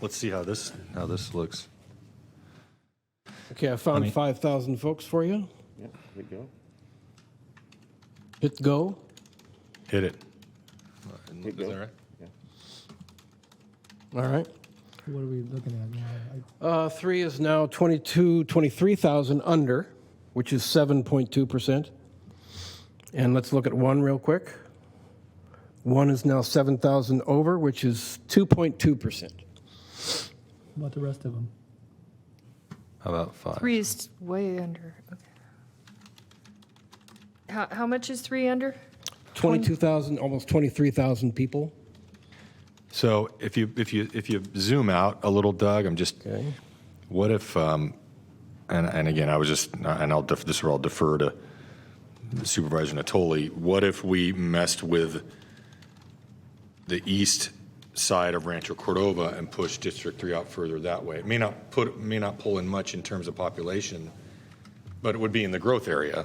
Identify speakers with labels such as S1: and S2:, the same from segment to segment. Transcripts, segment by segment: S1: Let's see how this, how this looks.
S2: Okay, I found
S1: mean-
S2: 5,000 folks for you.
S3: Yeah, we go.
S2: Hit go.
S1: Hit it.
S3: Hit
S1: Is
S3: go.
S1: that right?
S3: Yeah.
S2: All right.
S4: What are we looking at now? I-
S2: Uh, three is now 22, 23,000 under, which is 7.2%. And let's look at one real quick. One is now 7,000 over, which is 2.2%.
S4: About the rest of them?
S1: How about five?
S5: Three is way under. Okay. How, how much is three under?
S2: 22,000, almost 23,000 people.
S1: So if you if you if you zoom out a little, Doug, I'm just.
S2: Okay.
S1: What if, um, and and again, I was just, and I'll def, this will all defer to Supervisor Natoli. What if we messed with the east side of Rancho Cordova and pushed District Three out further that way? It may not put may not pull in much in terms of population, but it would be in the growth area.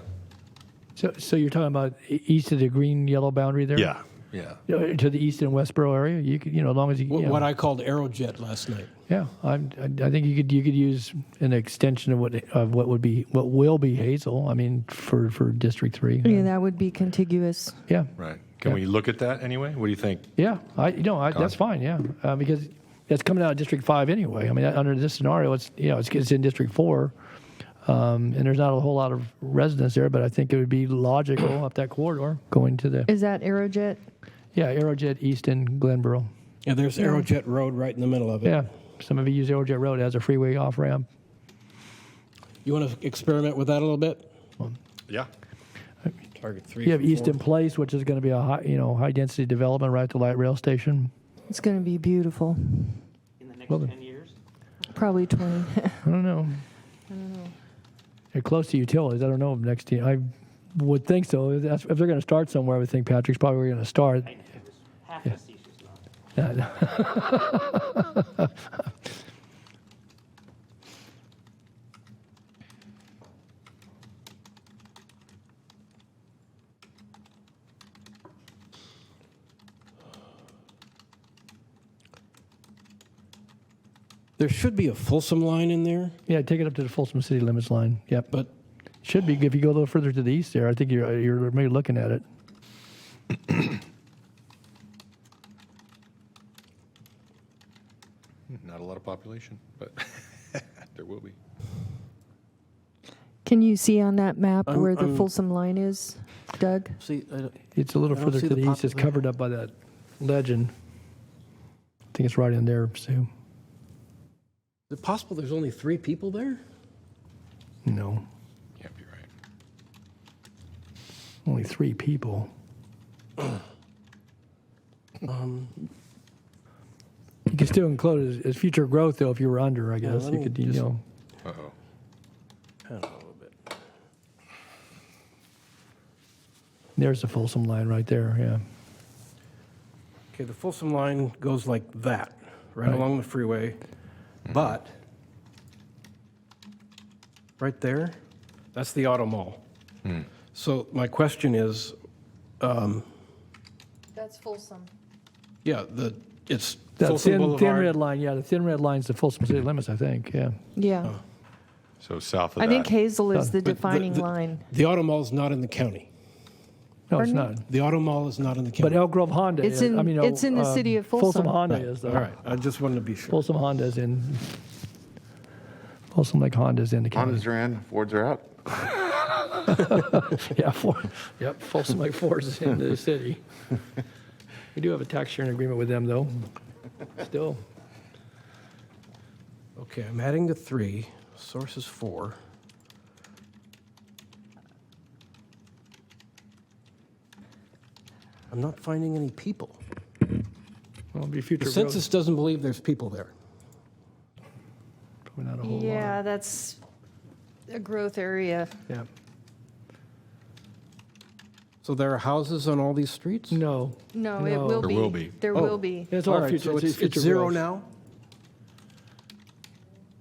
S4: So, so you're talking about e- east of the green yellow boundary there?
S1: yeah.
S4: You know, To the east and Westboro area, you could, you know, as long as you,
S2: Wh-
S4: you know,
S2: What I called Aerojet last night.
S4: yeah, I'm, I I think you could, you could use an extension of what, of what would be, what will be Hazel. I mean, for, for District Three.
S5: Yeah, that would be contiguous.
S4: Yeah,
S1: Right. Can we look at that anyway? What do you think?
S4: yeah. I, you know, I, that's fine. Yeah, uh, because it's coming out of District Five anyway. I mean, under this scenario, it's, you know, it's, it's in District Four. Um, and there's not a whole lot of residents there, but I think it would be logical up that corridor going to the,
S5: Is that Aerojet?
S4: yeah, Aerojet East and Glenboro.
S2: Yeah, there's Aerojet Road right in the middle of it.
S4: Yeah, some of you use Aerojet Road as a freeway off ramp.
S2: You want to experiment with that a little bit?
S1: Yeah.
S2: Target three.
S4: You have
S2: for
S4: Easton
S2: four.
S4: Place, which is going to be a high, you know, high density development right at the light rail station.
S5: It's going to be beautiful.
S6: in the next
S4: Well then.
S6: 10 years?
S5: Probably 20.
S4: I don't know. They're close to utilities. I don't know if next year. I would think so. That's, if they're going to start somewhere, I would think Patrick's probably going to start.
S6: I know, it was half facetious, not.
S2: There should be a Folsom line in there,
S4: yeah, take it up to the Folsom city limits line. Yep,
S2: but
S4: should be if you go a little further to the east there. I think you're you're maybe looking at it.
S1: Not a lot of population, but there will be.
S5: Can you see on that map
S2: I'm-
S5: where the
S2: I'm-
S5: Folsom line is, Doug?
S2: see, I don't-
S4: It's a little
S2: I don't
S4: further
S2: see
S4: to
S2: the
S4: the, east. It's
S2: poplar.
S4: covered up by that legend. I think it's right in there, Sue.
S2: is it possible there's only three people there?
S4: No,
S1: Yeah, you're right.
S4: only three people.
S2: Um,
S4: you could still include it as, as future growth, though, if you were under, I guess.
S2: let
S4: you
S2: me
S4: could, you
S2: just-
S4: know.
S1: Uh-oh.
S2: Kind of a little bit.
S4: There's the Folsom line right there, yeah.
S2: Okay, the Folsom line goes like that, right, along the freeway, but right there, that's the auto mall. So my question is,
S5: That's Folsom.
S2: yeah, the it's
S4: That
S2: Folsom
S4: thin, thin red
S2: Boulevard.
S4: line, yeah, the thin red line's the Folsom city limits, I think, yeah.
S5: Yeah.
S2: Oh,
S1: So south of
S5: I
S1: that.
S5: think Hazel is the
S2: But the-
S5: defining
S2: the-
S5: line.
S2: The auto mall's not in the county.
S4: No, it's
S5: Pardon me?
S4: not.
S2: The auto mall is not in the county.
S4: But Elk Grove Honda
S5: It's
S4: is,
S5: in-
S4: I mean,
S5: it's in the
S4: um,
S5: city of Folsom.
S4: Folsom Honda
S2: Right,
S4: is,
S2: All
S4: though.
S2: right, I just wanted to be sure.
S4: Folsom Honda's in, Folsom Lake Honda's in the county.
S3: Hondas are in, Fords are out.
S4: Yeah, four, yep, Folsom Lake Ford's in the city. We do have a tax sharing agreement with them, though, still.
S2: Okay, I'm adding the three. Source is four. I'm not finding any people.
S4: Well, it'll be future
S2: The
S4: growth.
S2: census doesn't believe there's people there.
S4: Probably not a whole lot.
S5: Yeah, that's a growth area.
S4: Yeah.
S2: So there are houses on all these streets?
S4: No.
S5: No, it will
S4: No.
S1: There
S5: be.
S1: will be.
S5: There
S2: Oh.
S5: will be.
S4: It's
S2: All
S4: all
S2: right,
S4: future,
S2: so
S4: it's
S2: it's, it's
S4: future
S2: zero
S4: growth.
S2: now?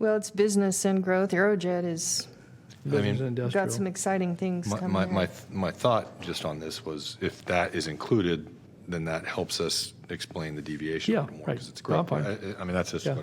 S5: Well, it's business and growth. Aerojet has
S4: Business and
S5: got some
S4: industrial.
S5: exciting things
S1: My,
S5: coming
S1: my, my,
S5: ahead.
S1: my thought just on this was if that is included, then that helps us explain the deviation a
S4: Yeah,
S1: little more
S4: right.
S1: because it's
S4: No, I'm
S1: growth. I, I mean, that's just
S4: Yeah.
S1: what